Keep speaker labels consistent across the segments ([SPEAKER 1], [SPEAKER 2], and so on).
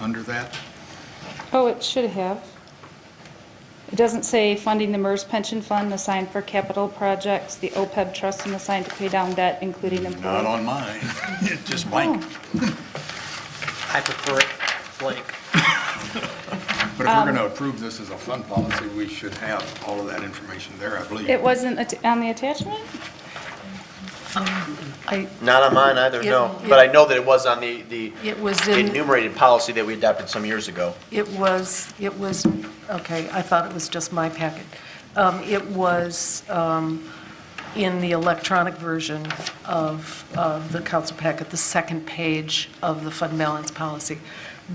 [SPEAKER 1] under that?
[SPEAKER 2] Oh, it should have. It doesn't say funding the MERS pension fund assigned for capital projects, the OPEB trust and assigned to pay down debt, including
[SPEAKER 1] Not
[SPEAKER 2] employee.
[SPEAKER 1] on mine, just blank.
[SPEAKER 3] I prefer it blank.
[SPEAKER 1] But if we're going to approve this as a fund policy, we should have all of that information there, I believe.
[SPEAKER 2] It wasn't at- on the attachment?
[SPEAKER 4] I,
[SPEAKER 3] Not on mine either, no.
[SPEAKER 4] Yeah,
[SPEAKER 3] But I
[SPEAKER 4] yeah.
[SPEAKER 3] know that it was on the, the
[SPEAKER 4] it was in,
[SPEAKER 3] enumerated policy that we adopted some years ago.
[SPEAKER 4] it was, it was, okay, I thought it was just my packet. Um, It was um, in the electronic version of, of the council packet, the second page of the fund balance policy,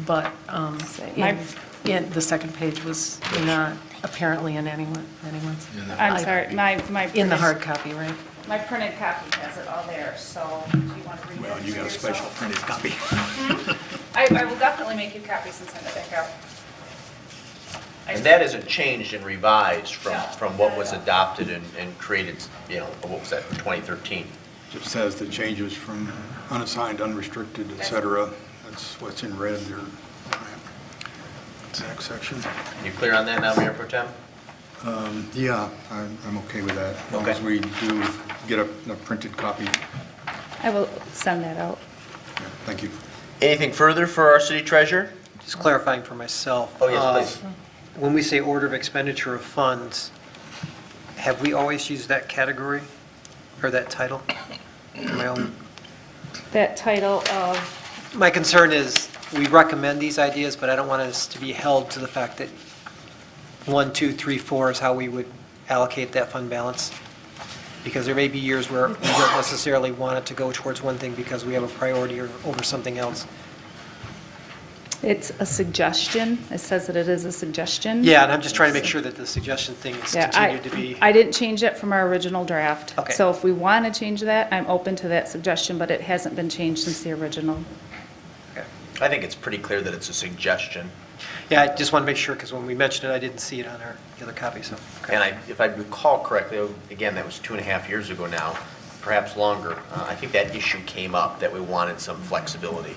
[SPEAKER 4] but um,
[SPEAKER 2] My-
[SPEAKER 4] in, in- the second page was not apparently in anyone, anyone's,
[SPEAKER 2] I'm sorry, my, my.
[SPEAKER 4] in the
[SPEAKER 2] printed-
[SPEAKER 4] hard copy, right?
[SPEAKER 2] My printed copy has it all there, so do you want to read it?
[SPEAKER 1] Well, you
[SPEAKER 2] for
[SPEAKER 1] got a
[SPEAKER 2] yourself?
[SPEAKER 1] special printed copy.
[SPEAKER 2] I, I will definitely make you copies and send it back out. I-
[SPEAKER 3] And that isn't changed and revised from,
[SPEAKER 2] No.
[SPEAKER 3] from what was adopted and, and created, you know, what was that, 2013?
[SPEAKER 1] Just says the changes from unassigned, unrestricted, et cetera. That's what's in red there. Next section.
[SPEAKER 3] You clear on that now, Mayor Pro Tem?
[SPEAKER 1] Yeah, I'm, I'm okay with that. As long
[SPEAKER 3] Okay.
[SPEAKER 1] as we do get a a printed copy.
[SPEAKER 2] I will send that out.
[SPEAKER 1] Yeah, Thank you.
[SPEAKER 3] Anything further for our city treasurer?
[SPEAKER 5] Just clarifying for myself.
[SPEAKER 3] Oh, yes,
[SPEAKER 5] uh,
[SPEAKER 3] please.
[SPEAKER 5] When we say order of expenditure of funds, have we always used that category or that title? My own-
[SPEAKER 2] That title of,
[SPEAKER 5] My concern is, we recommend these ideas, but I don't want us to be held to the fact that one, two, three, four is how we would allocate that fund balance. Because there may be years where we don't necessarily want it to go towards one thing because we have a priority or- over something else.
[SPEAKER 2] it's a suggestion. It says that it is a suggestion.
[SPEAKER 5] Yeah, and I'm just trying to make sure that the suggestion thing is
[SPEAKER 2] Yeah, I-
[SPEAKER 5] continued to be.
[SPEAKER 2] I didn't change it from our original draft.
[SPEAKER 5] Okay.
[SPEAKER 2] So if we want to change that, I'm open to that suggestion, but it hasn't been changed since the original.
[SPEAKER 5] Okay.
[SPEAKER 3] I think it's pretty clear that it's a suggestion.
[SPEAKER 5] Yeah, I just want to make sure, because when we mentioned it, I didn't see it on our, the other copy, so.
[SPEAKER 3] And I, if I recall correctly, oh, again, that was two and a half years ago now, perhaps longer. uh, I think that issue came up, that we wanted some flexibility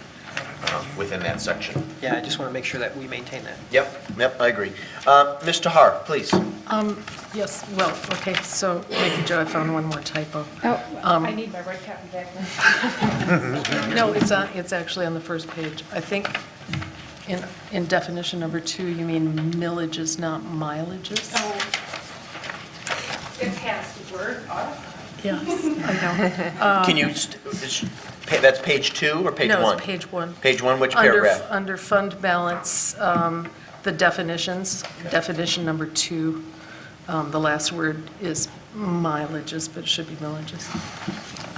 [SPEAKER 3] uh, within that section.
[SPEAKER 5] Yeah, I just want to make sure that we maintain that.
[SPEAKER 3] Yep, yep, I agree. Uh, Ms. Tahar, please.
[SPEAKER 4] Um, Yes, well, okay, so, thank you, Joe, I found one more typo.
[SPEAKER 2] Oh,
[SPEAKER 4] Um,
[SPEAKER 2] I need my red cap and back.
[SPEAKER 4] No, it's on, it's actually on the first page. I think in, in definition number two, you mean millages, not mileages?
[SPEAKER 2] It has word,
[SPEAKER 4] Yes, I
[SPEAKER 3] Can you, st- is- pa- that's page two or page
[SPEAKER 4] know.
[SPEAKER 3] one?
[SPEAKER 4] No, it's page one.
[SPEAKER 3] Page one, which
[SPEAKER 4] Under-
[SPEAKER 3] paragraph?
[SPEAKER 4] Under fund balance, um, the definitions, definition number two, um, the last word is mileages, but it should be millages,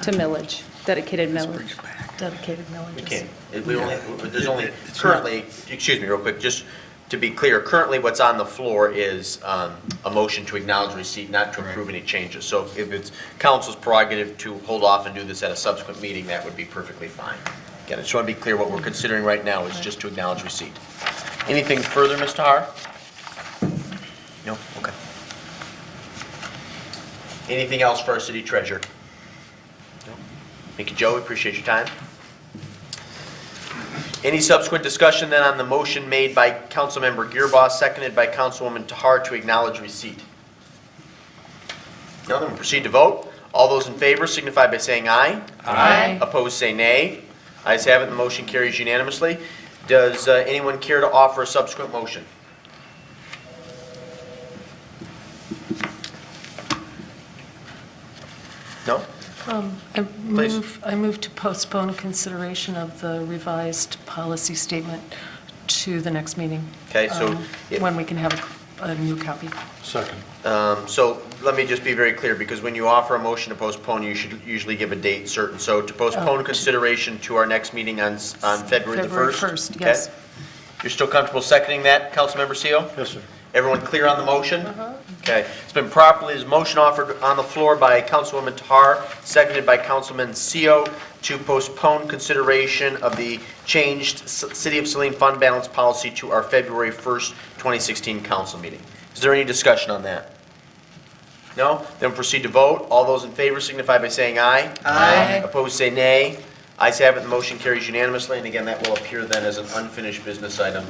[SPEAKER 2] To millage, dedicated millage.
[SPEAKER 4] dedicated millages.
[SPEAKER 3] We can't, it- we only, there's only currently, excuse me real quick, just to be clear, currently what's on the floor is um, a motion to acknowledge receipt, not to approve any changes. So if it's council's prerogative to hold off and do this at a subsequent meeting, that would be perfectly fine. Again, I just want to be clear, what we're considering right now is just to acknowledge receipt. Anything further, Ms. Tahar? No, okay. Anything else for our city treasurer? No. Thank you, Joe, We appreciate your time. Any subsequent discussion then on the motion made by Councilmember Gearboss, seconded by Councilwoman Tahar to acknowledge receipt? Now then, we proceed to vote. All those in favor signify by saying aye.
[SPEAKER 4] Aye.
[SPEAKER 3] Opposed, say nay. Ayes have it, the motion carries unanimously. Does uh, anyone care to offer a subsequent motion? No?
[SPEAKER 4] I
[SPEAKER 3] Please.
[SPEAKER 4] move, I move to postpone consideration of the revised policy statement to the next meeting.
[SPEAKER 3] Okay, so
[SPEAKER 4] um,
[SPEAKER 3] if-
[SPEAKER 4] When we can have a a new copy.
[SPEAKER 3] Um, So let me just be very clear, because when you offer a motion to postpone, you should usually give a date certain. So to postpone consideration to our next meeting on, s- on February the 1st?
[SPEAKER 4] Oh. February 1st, yes.
[SPEAKER 3] okay? You're still comfortable seconding that, Councilmember Seal? Yes, sir. Everyone clear on the motion?
[SPEAKER 4] Uh-huh.
[SPEAKER 3] Okay. It's been properly, is motion offered on the floor by Councilwoman Tahar, seconded by Councilman Seal, to postpone consideration of the changed S- City of Saline fund balance policy to our February 1st, 2016 council meeting. Is there any discussion on that? No? Then proceed to vote. All those in favor signify by saying aye.
[SPEAKER 4] Aye.
[SPEAKER 3] Opposed, say nay. Ayes have it, the motion carries unanimously, and again, that will appear then as an unfinished business item